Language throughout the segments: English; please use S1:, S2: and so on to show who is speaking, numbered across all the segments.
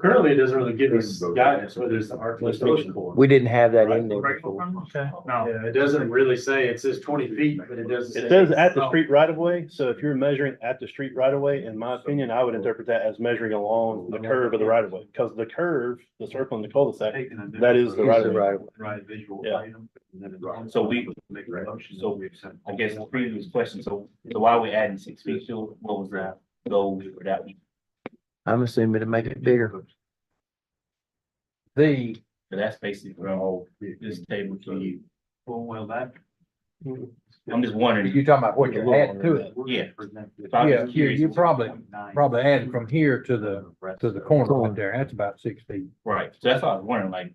S1: Currently, it doesn't really give us guidance whether it's the art restoration board.
S2: We didn't have that in there. before.
S3: Okay.
S1: No, it doesn't really say, it says twenty feet, but it doesn't.
S3: It
S1: say-
S3: says at the street right of way, so if you're measuring at the street right of way, in my opinion, I would interpret that as measuring along the curve of the right of way. Because the curve, the circle in the cul-de-sac,
S1: Taking a-
S3: that is the right
S2: It's
S3: of
S2: the
S3: way.
S2: right of way.
S1: Right, visual
S3: Yeah.
S1: item. and then it's-
S4: So we-
S1: Make a motion.
S4: so I guess the previous question, so, so why are we adding six feet, so what was that goal for that?
S2: I'm assuming to make it bigger. The,
S4: But that's basically what all this table to you,
S1: Well, well, that.
S3: Mm-hmm.
S4: I'm just wondering,
S5: You're talking about what you're adding to it,
S4: Yeah.
S1: If
S4: I'm
S5: Yeah,
S4: just
S5: you,
S4: curious.
S5: you probably, probably adding from here to the, to the corner right there, that's about six feet.
S4: right, so that's what I was wondering, like,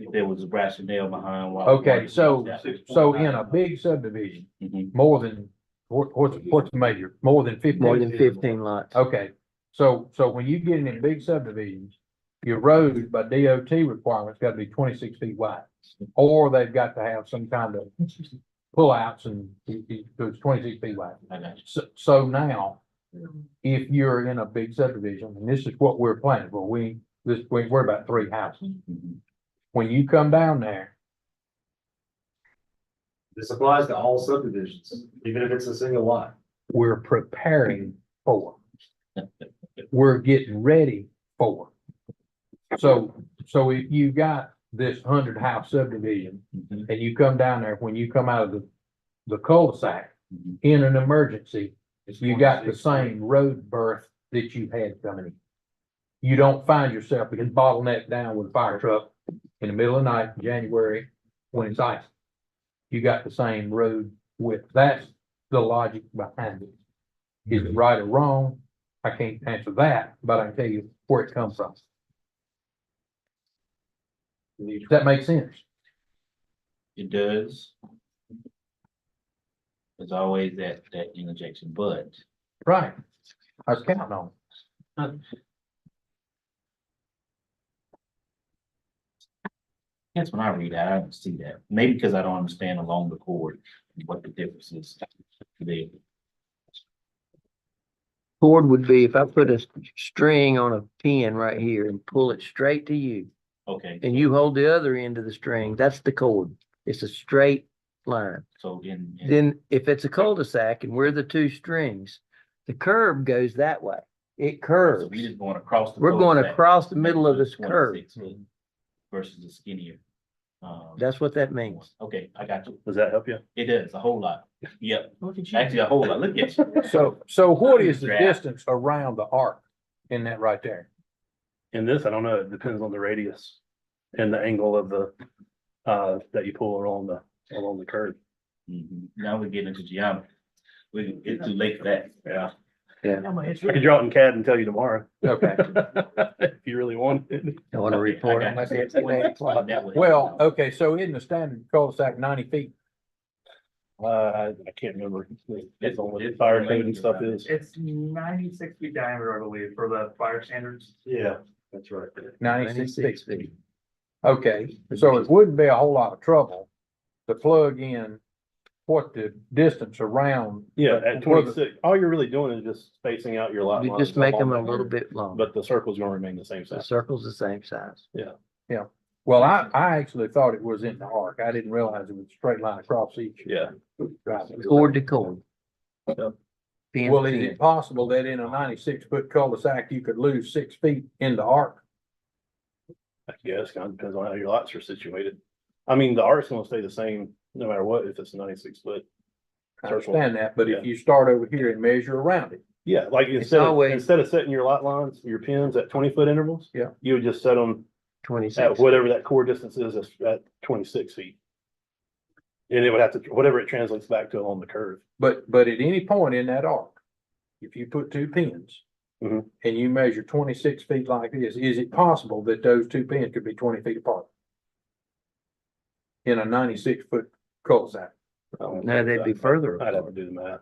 S4: if there was a rationale behind why. we wanted
S5: Okay,
S4: to
S5: so,
S4: do that.
S5: so in a big subdivision,
S4: Mhm.
S5: more than, what, what's, what's the major, more than fifteen?
S2: more than fifteen lots.
S5: Okay, so, so when you get in in big subdivisions, your road by DOT requirements gotta be twenty-six feet wide. Or they've got to have some kind of pullouts and it- it- it's twenty-six feet wide.
S4: I got you.
S5: So, so now, if you're in a big subdivision, and this is what we're planning, but we, this, we, we're about three houses.
S4: Mhm.
S5: When you come down there,
S1: This applies to all subdivisions, even if it's a single lot.
S5: we're preparing for. We're getting ready for. So, so if you got this hundred house subdivision
S4: Mhm.
S5: and you come down there, when you come out of the, the cul-de-sac
S4: Mhm.
S5: in an emergency,
S1: It's
S5: you got the
S1: 26.
S5: same road berth that you had coming in. You don't find yourself getting bottlenecked down with a fire truck in the middle of the night, in January, when it's ice. You got the same road width. That's the logic behind it. Is it right or wrong? I can't answer that, but I can tell you where it comes from. Does that make sense?
S4: It does. There's always that, that interjection, but.
S5: Right. I was counting on. it.
S4: That's when I read that, I don't see that. Maybe because I don't understand along the cord, what the difference is there.
S2: Cord would be if I put a string on a pin right here and pull it straight to you,
S4: Okay,
S2: and you hold the other end of the string, that's the cord. It's a straight line.
S4: so in, in-
S2: Then if it's a cul-de-sac and we're the two strings, the curve goes that way. It
S4: so
S2: curves.
S4: we just going across. the
S2: We're going
S4: cul-de-sac
S2: across the middle of
S4: to
S2: this curve.
S4: 26 Versus the skinnier. um,
S2: That's what that
S4: one.
S2: means.
S4: Okay, I got you.
S3: Does that help you?
S4: It is a whole lot. Yep, actually a whole lot. Look at you.
S5: So, so what is the
S4: Draft.
S5: distance around the arc in that right there?
S3: In this, I don't know, it depends on the radius and the angle of the, uh, that you pull along the, along the curve.
S4: Mhm. Now we're getting into geometry. We, it's too late for that.
S3: Yeah.
S6: I
S3: I could draw it in CAD and tell you tomorrow,
S5: Okay.
S3: if you really want it.
S2: I want to
S4: Okay, I
S2: report
S4: got
S2: on that.
S4: you.
S2: It's an eight o'clock.
S4: That way.
S5: Well, okay, so in the standard cul-de-sac ninety feet,
S3: Uh, I I can't remember. It's on what the
S4: it's
S3: fire
S4: related
S3: code and stuff
S4: around
S3: is.
S6: It's ninety-six feet diameter, I believe, for the fire standards.
S1: Yeah, that's right.
S5: ninety-six feet.
S2: Ninety-six feet.
S5: Okay, so it wouldn't be a whole lot of trouble to plug in what the distance around.
S3: Yeah, at
S5: Where the-
S3: twenty-six, all you're really doing is just spacing out your lot.
S2: You
S3: lines
S2: just make
S3: along
S2: them a
S3: that
S2: little
S3: curve,
S2: bit longer.
S3: But the circle's gonna remain the same
S2: The
S3: size.
S2: circle's the same size.
S5: Well, I, I actually thought it was in the arc. I didn't realize it was a straight line across each.
S3: Yeah.
S5: driveway.
S2: Cord to cord.
S3: Yep.
S2: Pin
S5: Well,
S2: to
S5: is
S2: pin.
S5: it possible that in a ninety-six foot cul-de-sac, you could lose six feet in the arc?
S3: I guess, kinda depends on how your lots are situated. I mean, the arc's gonna stay the same, no matter what, if it's ninety-six foot.
S5: I
S3: Circle.
S5: understand that, but
S3: Yeah.
S5: if you start over here and measure around it,
S3: Yeah, like instead of,
S2: always-
S3: instead of setting your lot lines, your pins at twenty foot intervals.
S5: Yeah.
S3: You would just set them
S2: Twenty-six.
S3: at whatever that core distance is, at- at twenty-six feet. And it would have to, whatever it translates back to along the curve.
S5: but, but at any point in that arc, if you put two pins
S3: Mhm.
S5: and you measure twenty-six feet like this, is it possible that those two pins could be twenty feet apart? In a ninety-six foot cul-de-sac?
S2: No, they'd be further
S3: I'd have to
S2: apart.
S3: do the math.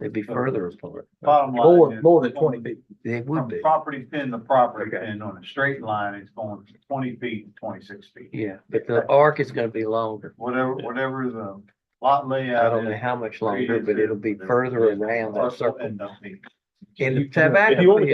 S2: They'd be further apart. Uh,
S6: Bottom line
S5: More,
S6: is,
S5: more than twenty feet.
S2: They would
S6: from
S2: be.
S6: property pin to property
S5: Okay.
S6: pin on a straight line, it's going twenty feet, to twenty-six feet.
S2: Yeah, but the arc is gonna be longer.
S6: Whatever, whatever the lot
S2: I
S6: layout
S2: don't know
S6: is.
S2: how much longer, but it'll be further around that
S6: parcel
S2: circle.
S6: end up being.
S2: And
S3: You-
S2: the tobacco
S3: if you want me to